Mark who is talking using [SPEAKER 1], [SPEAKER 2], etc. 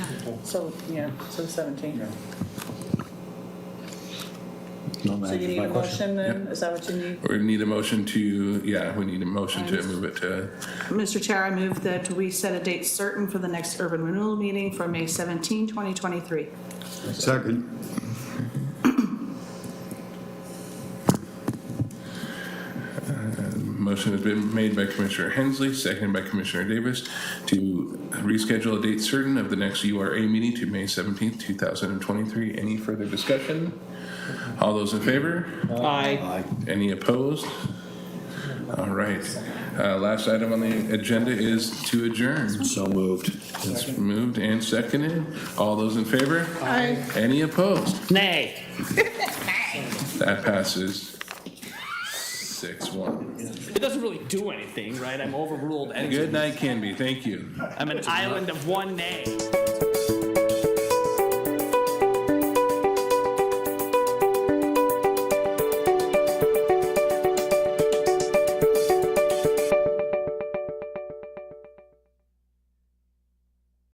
[SPEAKER 1] people.
[SPEAKER 2] So, yeah, so 17.
[SPEAKER 3] No, that
[SPEAKER 2] So you
[SPEAKER 3] answers
[SPEAKER 2] need
[SPEAKER 3] my
[SPEAKER 2] a motion
[SPEAKER 3] question.
[SPEAKER 2] then? Is that what you need?
[SPEAKER 1] We need a motion to, yeah, we need a motion to move it to,
[SPEAKER 4] Mr. Chair, I move that we set a date certain for the next urban renewal meeting for May 17, 2023.
[SPEAKER 5] Second.
[SPEAKER 1] motion has been made by Commissioner Hensley, seconded by Commissioner Davis to reschedule a date certain of the next URA meeting to May seventeenth, two thousand and twenty-three. Any further discussion? All those in favor?
[SPEAKER 6] Aye.
[SPEAKER 1] Any opposed? All right. Uh, last item on the agenda is to adjourn.
[SPEAKER 3] So moved.
[SPEAKER 1] It's moved and seconded. All those in favor?
[SPEAKER 4] Aye.
[SPEAKER 1] Any opposed?
[SPEAKER 6] Nay.
[SPEAKER 1] That passes six one.
[SPEAKER 6] It doesn't really do anything, right? I'm overruled. anyway.
[SPEAKER 1] Good night, Canby. Thank you.
[SPEAKER 6] I'm an island of one nay.